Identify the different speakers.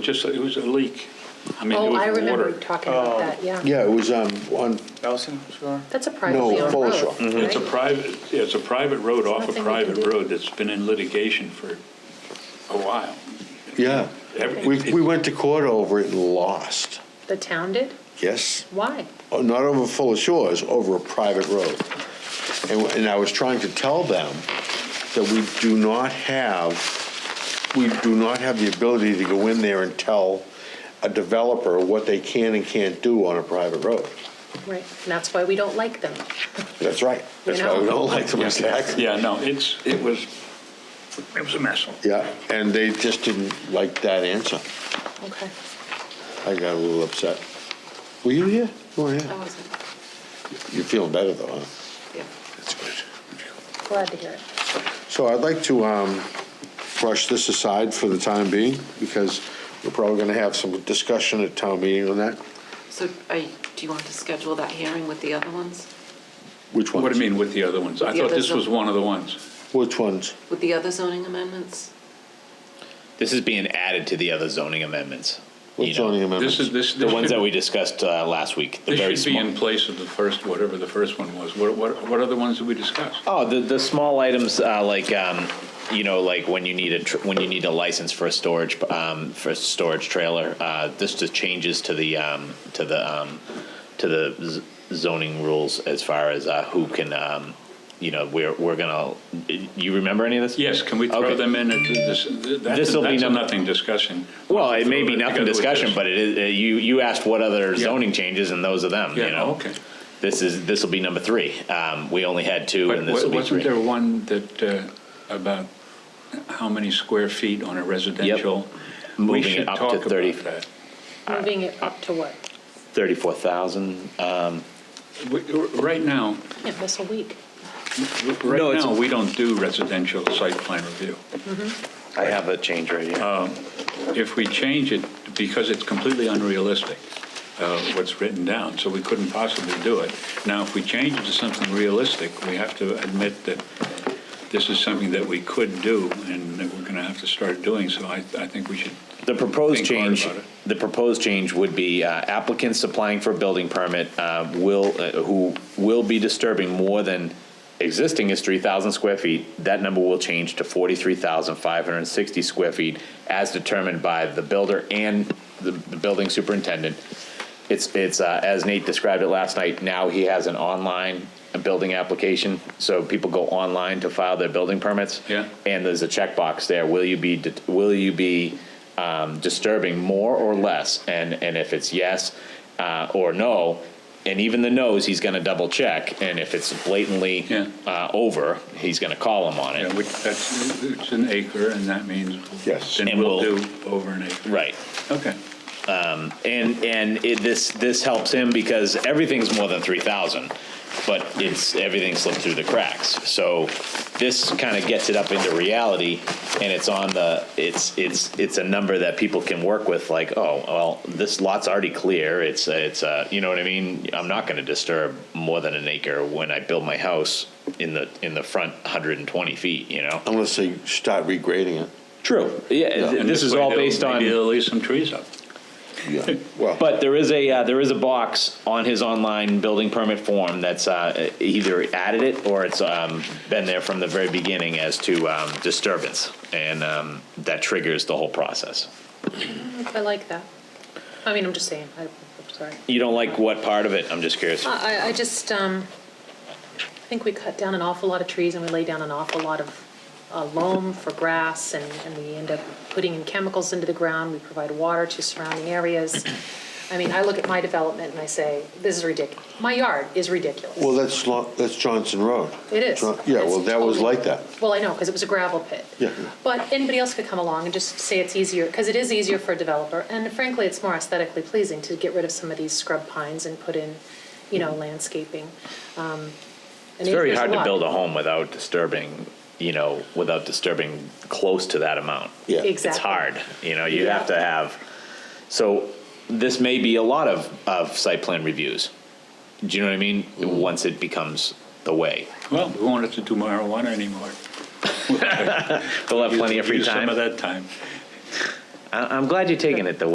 Speaker 1: Just, it was a leak. I mean, it
Speaker 2: Oh, I
Speaker 1: was
Speaker 2: remember you
Speaker 1: water.
Speaker 2: talking about that, yeah.
Speaker 3: Yeah, it was um, on,
Speaker 4: Allison, sure.
Speaker 2: That's a privately
Speaker 3: No,
Speaker 2: owned road.
Speaker 3: Polish Rock.
Speaker 2: right?
Speaker 1: Mm-hmm. It's a private, yeah, it's a private road off a
Speaker 2: nothing we can
Speaker 1: private
Speaker 2: do.
Speaker 1: road that's been in litigation for a while.
Speaker 3: yeah.
Speaker 1: Every-
Speaker 3: We, we went to court over it and lost.
Speaker 2: The town did?
Speaker 3: Yes,
Speaker 2: Why?
Speaker 3: Oh, not over Fuller Shores, over a private road. And, and I was trying to tell them that we do not have, we do not have the ability to go in there and tell a developer what they can and can't do on a private road.
Speaker 2: Right, and that's why we don't like them.
Speaker 3: That's right. That's why we don't like them, exactly.
Speaker 1: Yeah, no, it's, it was, it was a mess.
Speaker 3: Yeah, and they just didn't like that answer.
Speaker 2: Okay,
Speaker 3: I got a little upset. Were you here? You were
Speaker 2: I
Speaker 3: here.
Speaker 2: wasn't,
Speaker 3: You're feeling better though, huh?
Speaker 2: yeah,
Speaker 3: That's good.
Speaker 2: glad to hear it.
Speaker 3: So I'd like to um, brush this aside for the time being, because we're probably going to have some discussion at town meeting on that.
Speaker 5: So are you- do you want to schedule that hearing with the other ones?
Speaker 3: Which ones?
Speaker 1: What do you mean with the other ones? I
Speaker 5: With the
Speaker 1: thought
Speaker 5: other
Speaker 1: this was
Speaker 5: zone-
Speaker 1: one of the ones.
Speaker 3: Which ones?
Speaker 5: With the other zoning amendments?
Speaker 6: This is being added to the other zoning amendments. you
Speaker 3: Which
Speaker 6: know.
Speaker 3: zoning amendments?
Speaker 1: This is, this.
Speaker 6: The ones that we discussed uh, last week, the very
Speaker 1: This should be
Speaker 6: small.
Speaker 1: in place of the first, whatever the first one was. What, what, what other ones did we discuss?
Speaker 6: Oh, the, the small items, uh, like, um, you know, like when you need a, tr- when you need a license for a storage, um, for a storage trailer, uh, this just changes to the, um, to the, um, to the z- zoning rules as far as, uh, who can, um, you know, we're, we're gonna, you remember any of this?
Speaker 1: Yes, can we
Speaker 6: Okay.
Speaker 1: throw them in at this, that's, that's
Speaker 6: This will be
Speaker 1: a
Speaker 6: number-
Speaker 1: nothing discussion.
Speaker 6: Well, it may be
Speaker 1: Throw that
Speaker 6: nothing
Speaker 1: together with
Speaker 6: discussion,
Speaker 1: this.
Speaker 6: but it is, uh, you, you asked what other
Speaker 1: Yeah.
Speaker 6: zoning changes and those are them, you
Speaker 1: Yeah,
Speaker 6: know?
Speaker 1: okay.
Speaker 6: This is, this will be number three. Um, we only had two
Speaker 1: But
Speaker 6: and this
Speaker 1: wa-
Speaker 6: will be
Speaker 1: wasn't
Speaker 6: three.
Speaker 1: there one that, uh, about how many square feet on a residential? We
Speaker 6: Moving it
Speaker 1: should
Speaker 6: up to
Speaker 1: talk about
Speaker 6: 30.
Speaker 1: that.
Speaker 2: Moving it up to what?
Speaker 6: Thirty-four thousand.
Speaker 1: We- r- Right now,
Speaker 2: Yeah, miss a week.
Speaker 1: r-
Speaker 6: No,
Speaker 1: right
Speaker 6: it's-
Speaker 1: now, we don't do residential site plan review.
Speaker 6: I have a change right here.
Speaker 1: If we change it, because it's completely unrealistic, uh, what's written down, so we couldn't possibly do it. Now, if we change it to something realistic, we have to admit that this is something that we could do and that we're going to have to start doing, so I, I think we should
Speaker 6: The proposed
Speaker 1: think hard
Speaker 6: change,
Speaker 1: about it.
Speaker 6: the proposed change would be uh, applicants applying for a building permit uh, will, uh, who will be disturbing more than, existing is three thousand square feet. That number will change to forty-three thousand five hundred and sixty square feet as determined by the builder and the, the building superintendent. It's, it's, uh, as Nate described it last night, now he has an online building application. So people go online to file their building permits.
Speaker 1: Yeah.
Speaker 6: And there's a checkbox there. Will you be, det- will you be um, disturbing more or less? And, and if it's yes uh, or no, and even the no's, he's going to double check. And if it's blatantly
Speaker 1: Yeah.
Speaker 6: uh, over, he's going to call him on
Speaker 1: Yeah,
Speaker 6: it.
Speaker 1: which, that's, it's an acre, and that means.
Speaker 3: Yes.
Speaker 1: Then
Speaker 6: And
Speaker 1: we'll
Speaker 6: we'll-
Speaker 1: do over an acre.
Speaker 6: Right.
Speaker 1: Okay.
Speaker 6: And, and it, this, this helps him because everything's more than 3,000, but it's, everything slipped through the cracks. So this kind of gets it up into reality and it's on the, it's, it's, it's a number that people can work with like, oh, well, this lot's already clear. It's, it's, uh, you know what I mean? I'm not going to disturb more than an acre when I build my house in the, in the front 120 feet, you know?
Speaker 3: Unless they start regrading it.
Speaker 6: True. Yeah,
Speaker 1: And
Speaker 6: this is
Speaker 1: way
Speaker 6: all
Speaker 1: they'll-
Speaker 6: based on.
Speaker 1: Maybe they'll leave some trees up.
Speaker 3: Yeah, well,
Speaker 6: But there is a uh, there is a box on his online building permit form that's uh, either added it or it's um, been there from the very beginning as to um, disturbance, and um, that triggers the whole process.
Speaker 2: I like that. I mean, I'm just saying, I, I'm sorry.
Speaker 6: You don't like what part of it? I'm just curious.
Speaker 2: I, I- I just, um, I think we cut down an awful lot of trees and we lay down an awful lot of uh, loam for grass and, and we end up putting in chemicals into the ground. We provide water to surrounding areas. I mean, I look at my development and I say, this is ridiculous. My yard is ridiculous.
Speaker 3: well, that's, Lo- that's Johnson Road.
Speaker 2: It is.
Speaker 3: John- Yeah, well,
Speaker 2: It's
Speaker 3: that was
Speaker 2: totally-
Speaker 3: like that.
Speaker 2: Well, I know, because it was a gravel pit.
Speaker 3: Yeah.
Speaker 2: But anybody else could come along and just say it's easier, because it is easier for a developer, and frankly, it's more aesthetically pleasing to get rid of some of these scrub pines and put in, you know, landscaping. Um,
Speaker 6: It's very hard to build a home without disturbing, you know, without disturbing close to that amount.
Speaker 3: Yeah.
Speaker 6: It's
Speaker 2: Exactly.
Speaker 6: hard, you know, you have to have, so this may be a lot of, of site plan reviews. Do you know what I mean? Once it becomes the way.
Speaker 1: Well, we won't have to do marijuana anymore.
Speaker 6: They'll have plenty of free
Speaker 1: Use Some of
Speaker 6: time.
Speaker 1: that time.
Speaker 6: I- I'm glad you're taking it, though.